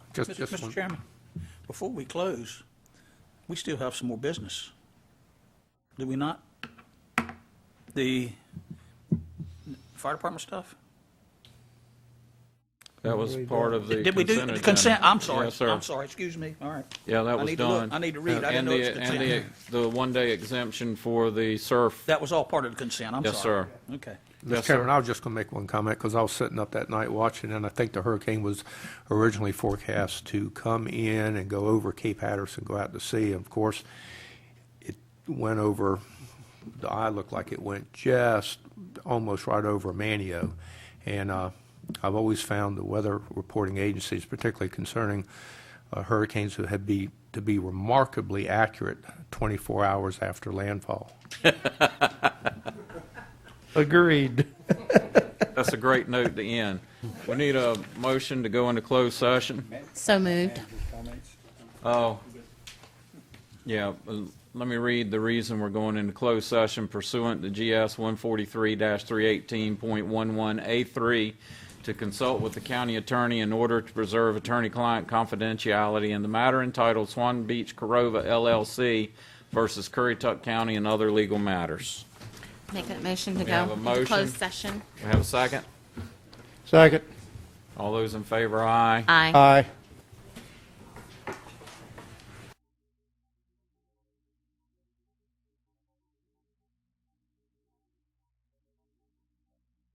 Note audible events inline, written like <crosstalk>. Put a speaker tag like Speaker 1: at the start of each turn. Speaker 1: Just,
Speaker 2: Mr.
Speaker 1: just
Speaker 2: Mr.
Speaker 1: one.
Speaker 2: Chairman, before we close, we still have some more business. Do we not? The fire department stuff?
Speaker 3: That was part of the
Speaker 2: Did we do,
Speaker 3: consent
Speaker 2: the
Speaker 3: agenda.
Speaker 2: consent, I'm sorry,
Speaker 3: Yes, sir.
Speaker 2: I'm sorry, excuse me, all right.
Speaker 3: Yeah, that
Speaker 2: I
Speaker 3: was
Speaker 2: need to look-
Speaker 3: done.
Speaker 2: I need to read, I didn't
Speaker 3: And
Speaker 2: know
Speaker 3: the-
Speaker 2: it was consent.
Speaker 3: <laughs> And the, the one-day exemption for the surf.
Speaker 2: That was all part of the consent, I'm sorry.
Speaker 3: Yes,
Speaker 2: Okay.
Speaker 1: Mr. Chairman, I was just going to make one comment because I was sitting up that night watching, and I think the hurricane was originally forecast to come in and go over Cape Hatteras and go out to sea. Of course, it went over, the eye looked like it went just almost right over Manio. And uh, I've always found the weather reporting agencies, particularly concerning uh, hurricanes, to have be, to be remarkably accurate 24 hours after landfall.
Speaker 4: Agreed.
Speaker 3: That's a great note to end. We need a motion to go into closed session.
Speaker 5: So moved.
Speaker 3: Oh, yeah, uh, let me read the reason we're going into closed session pursuant to GS 143-318.11A3 to consult with the county attorney in order to preserve attorney-client confidentiality in the matter entitled Swan Beach Corova LLC versus Currituck County and other legal matters.
Speaker 5: Make that motion to
Speaker 3: We have
Speaker 5: go
Speaker 3: a
Speaker 5: into closed
Speaker 3: motion.
Speaker 5: session.
Speaker 3: We have a second?
Speaker 4: Second.
Speaker 3: All those in favor, aye.
Speaker 5: Aye.
Speaker 4: Aye.